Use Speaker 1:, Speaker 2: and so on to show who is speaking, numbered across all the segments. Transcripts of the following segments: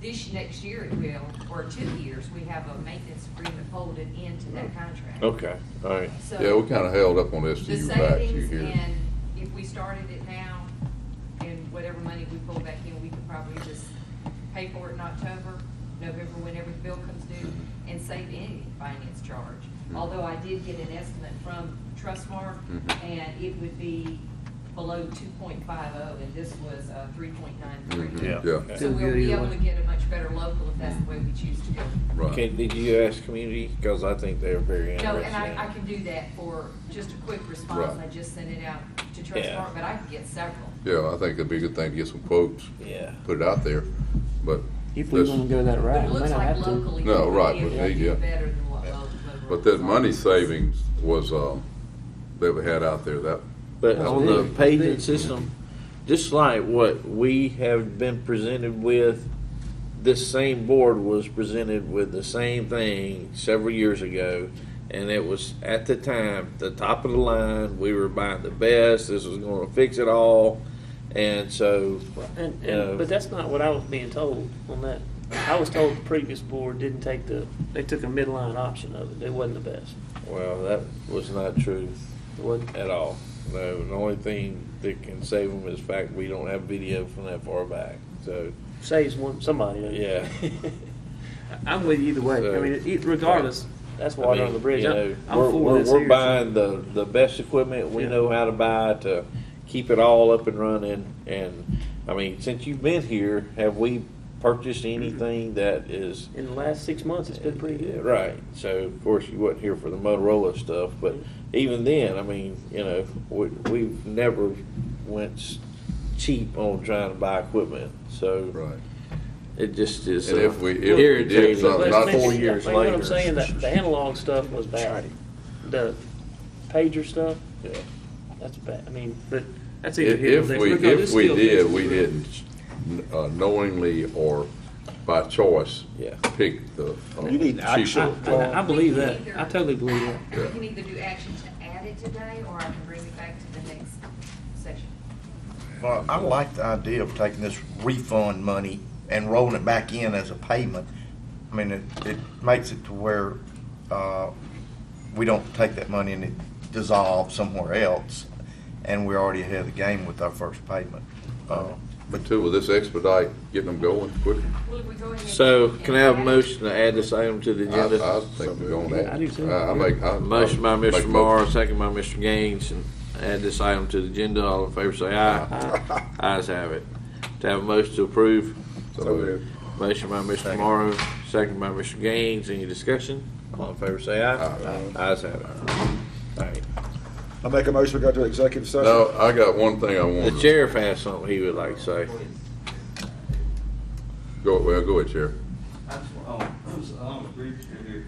Speaker 1: this next year it will, or two years, we have a maintenance agreement folded into that contract.
Speaker 2: Okay, all right.
Speaker 1: So-
Speaker 3: Yeah, we kinda held up on this
Speaker 1: The
Speaker 3: to you back to
Speaker 1: savings
Speaker 3: you here.
Speaker 1: and if we started it now and whatever money we pull back in, we could probably just pay for it in October, November, whenever the bill comes due and save any finance charge.
Speaker 3: Mhm.
Speaker 1: Although I did get an estimate from Trustmark
Speaker 3: Mhm.
Speaker 1: and it would be below two point five oh and this was, uh, three point nine three.
Speaker 2: Yeah.
Speaker 3: Mm-hmm. Yeah,
Speaker 1: So
Speaker 4: Still
Speaker 1: we'll
Speaker 4: good
Speaker 1: be
Speaker 4: either
Speaker 1: able to
Speaker 4: way.
Speaker 1: get a much better local if that's the way we choose to go.
Speaker 2: Okay,
Speaker 3: right.
Speaker 2: did you ask community? Because I think they're very
Speaker 1: No,
Speaker 2: interested.
Speaker 1: and
Speaker 2: in
Speaker 1: I, I
Speaker 2: it.
Speaker 1: can do that for just a quick response,
Speaker 3: Right.
Speaker 1: I just sent it out to
Speaker 2: Yeah.
Speaker 1: Trustmark, but I can get several.
Speaker 3: Yeah, I think it'd be a good thing to get some quotes,
Speaker 2: Yeah.
Speaker 3: put it out there, but
Speaker 4: If we're
Speaker 3: that's-
Speaker 4: gonna go that
Speaker 1: But
Speaker 4: route,
Speaker 1: it
Speaker 4: we might
Speaker 1: looks
Speaker 4: not
Speaker 1: like
Speaker 4: have to.
Speaker 1: locally.
Speaker 3: No, right,
Speaker 1: it'd
Speaker 3: but
Speaker 1: be
Speaker 3: yeah.
Speaker 1: Better than what lo- local.
Speaker 3: But that money
Speaker 1: is.
Speaker 3: savings was, um, that we had out there, that,
Speaker 2: But
Speaker 4: That's
Speaker 2: on the
Speaker 4: big.
Speaker 2: paging
Speaker 4: Big.
Speaker 2: system, just like what we have been presented with, this same board was presented with the same thing several years ago. And it was at the time, the top of the line, we were buying the best, this was gonna fix it all. And so,
Speaker 5: And,
Speaker 2: Yeah.
Speaker 5: and, but that's not what I was being told on that. I was told the previous board didn't take the, they took a midline option of it. It wasn't the best.
Speaker 2: well, that was not true
Speaker 5: It wasn't.
Speaker 2: at all. No, the only thing that can save them is the fact we don't have video from that far back, so,
Speaker 5: Saves one, somebody. doesn't it?
Speaker 2: yeah.
Speaker 4: I'm with you either way.
Speaker 2: So-
Speaker 5: I mean, it- regardless, that's water
Speaker 2: I
Speaker 5: under
Speaker 2: mean,
Speaker 5: the bridge.
Speaker 2: you
Speaker 5: I'm
Speaker 2: know,
Speaker 5: I'm
Speaker 2: we're,
Speaker 5: for
Speaker 2: we're,
Speaker 5: this
Speaker 2: we're
Speaker 5: here.
Speaker 2: buying the, the best equipment we
Speaker 5: Yeah.
Speaker 2: know how to buy to keep it all up and running. And I mean, since you've been here, have we purchased anything that is?
Speaker 5: In the last six months, it's been pretty good.
Speaker 2: Right. So of course you wasn't here for the Motorola stuff, but
Speaker 5: Mm-hmm.
Speaker 2: even then, I mean, you know, we, we've never went s- cheap on trying to buy equipment. So
Speaker 3: right.
Speaker 2: it just is
Speaker 3: And
Speaker 2: uh,
Speaker 3: if we- if we did
Speaker 2: irritating.
Speaker 3: something,
Speaker 5: But
Speaker 3: not
Speaker 5: I mean,
Speaker 2: four years
Speaker 5: like
Speaker 2: later.
Speaker 5: What I'm saying, that the analog stuff was bad. The pager stuff,
Speaker 2: Yeah.
Speaker 5: that's bad. I mean, but that's either
Speaker 3: If
Speaker 5: here or
Speaker 3: if
Speaker 5: there.
Speaker 3: we,
Speaker 5: Regardless,
Speaker 3: if we
Speaker 5: still fixes
Speaker 3: did, we
Speaker 5: it.
Speaker 3: didn't uh, knowingly or by choice
Speaker 2: Yeah.
Speaker 3: pick the. uh,
Speaker 4: You need action.
Speaker 3: cheaper
Speaker 5: I, I- I believe that. I totally believe that.
Speaker 1: We can either do action to add it today, or I can bring it back to the next session.
Speaker 6: Well, I like the idea of taking this refund money and rolling it back in as a payment. I mean, it, it makes it to where, uh, we don't take that money and it dissolves somewhere else, and we're already ahead of the game with our first payment. Uh,
Speaker 3: But too, will this expedite getting them going quicker?
Speaker 1: Well, if we go ahead and-
Speaker 2: So can I have a
Speaker 1: and add it-
Speaker 2: motion to add this item to the
Speaker 3: I, I
Speaker 2: agenda?
Speaker 3: think we're going to.
Speaker 5: I do too.
Speaker 3: I I make. I- I
Speaker 2: Motion by
Speaker 3: make
Speaker 2: Mr.
Speaker 3: a
Speaker 2: Morrow,
Speaker 3: motion.
Speaker 2: second by Mr. Gaines, and add this item to the agenda. All in favor, say aye. Ayes have it. To have a motion to approve,
Speaker 3: So moved.
Speaker 2: motion by Mr. Morrow, second by Mr. Gaines. Any discussion? All in favor, say aye. Ayes have it. All right.
Speaker 7: I make a motion, we go to executive session.
Speaker 3: Now, I got one thing I
Speaker 2: The
Speaker 3: wanted to,
Speaker 2: sheriff has something he would like to say.
Speaker 3: go, well, go ahead, Chair.
Speaker 8: I just, want- um, I was on the brief here, here.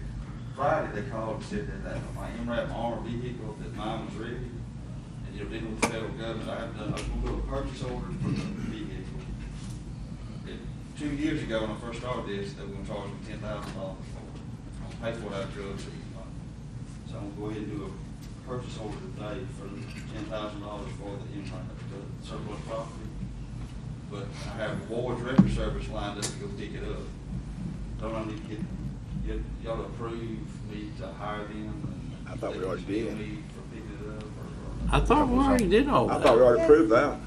Speaker 8: Friday, they called and said that, that my MRAP armored vehicle, that mine was ready. And, you know, dealing with the federal government, I have done, I was gonna do a purchase order for the vehicle. It- Two years ago, when I first started this, they were gonna charge me ten thousand dollars for it. I'm gonna pay for it out of drugs that he's buying. So I'm gonna go ahead and do a purchase order today for ten thousand dollars for the MRAP, the surplus property. But I have Ward's Record Service lined up to go pick it up. Don't I need to get, get, y'all approve me to hire them? and
Speaker 7: I thought we already
Speaker 8: they
Speaker 7: did.
Speaker 8: can bill me For picking it up or?
Speaker 2: I thought we already did all
Speaker 7: I thought we
Speaker 2: that.
Speaker 7: already proved that.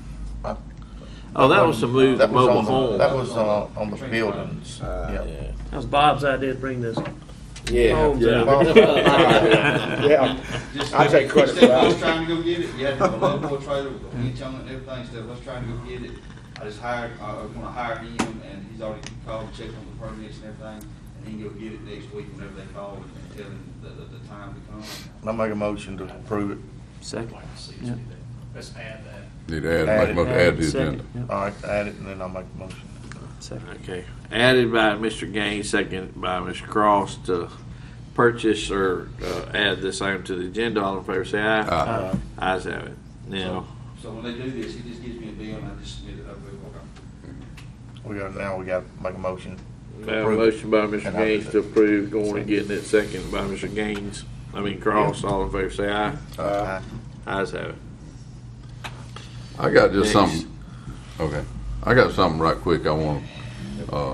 Speaker 2: Oh, that was to move the
Speaker 6: That was
Speaker 2: mobile
Speaker 6: on the- That
Speaker 2: home.
Speaker 6: was on, on the buildings,
Speaker 7: Uh,
Speaker 6: yeah.
Speaker 2: Yeah.
Speaker 5: That was Bob's idea to bring this.
Speaker 2: Yeah.
Speaker 5: Homes
Speaker 7: Yeah.
Speaker 5: out.
Speaker 7: Yeah,
Speaker 8: Just-
Speaker 7: I take credit for
Speaker 8: Instead of us
Speaker 7: that.
Speaker 8: trying to go get it, you had to have a local trailer with a winch on it and everything, instead of us trying to go get it, I just hired, I was gonna hire him and he's already called, and checked on the permits and everything, and he can go get it next week whenever they call and tell him the, the, the time to come.
Speaker 6: I make a motion to approve it,
Speaker 5: Second. Yeah.
Speaker 9: Let's add that.
Speaker 3: Need to add, make a motion, add to the
Speaker 5: Second.
Speaker 3: agenda.
Speaker 5: Yeah.
Speaker 6: all right, add it, and then I'll make a motion.
Speaker 5: Second.
Speaker 2: Okay, added by Mr. Gaines, second by Mr. Cross to purchase or uh, add this item to the agenda. All in favor, say aye.
Speaker 3: Aye.
Speaker 2: Ayes have it. Now,
Speaker 8: So when they do this, he just gives me a bill and I just submit it, I go, okay.
Speaker 6: We got, now we got to make a motion.
Speaker 2: we have a motion by Mr.
Speaker 6: And I-
Speaker 2: Gaines to approve going and getting it, second by Mr. Gaines, I mean Cross. All in favor, say aye.
Speaker 7: Uh,
Speaker 6: Aye.
Speaker 2: Ayes have it.
Speaker 3: I got just
Speaker 2: Thanks.
Speaker 3: something, okay, I got something right quick I want, to uh,